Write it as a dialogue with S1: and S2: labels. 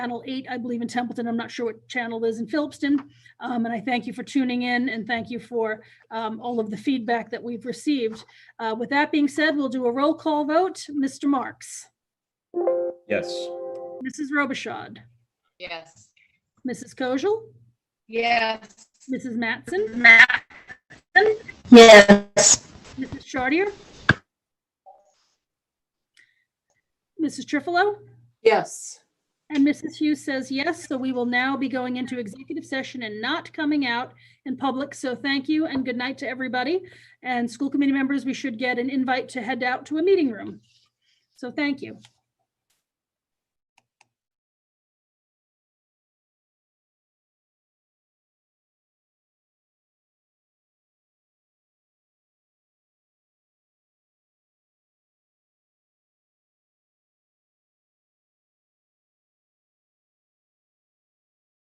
S1: Channel 8, I believe in Templeton. I'm not sure what channel is in Phillipston. Um, And I thank you for tuning in and thank you for um, all of the feedback that we've received. Uh, With that being said, we'll do a roll call vote. Mr. Marks,
S2: Yes.
S1: Mrs. Robichaud,
S3: Yes.
S1: Mrs. Kojal,
S3: Yes.
S1: Mrs. Mattson,
S4: Yes.
S1: Mrs. Chartier, Mrs. Trifilo?
S5: Yes.
S1: And Mrs. Hughes says yes, so we will now be going into executive session and not coming out in public. So thank you and good night to everybody. And school committee members, we should get an invite to head out to a meeting room. So thank you.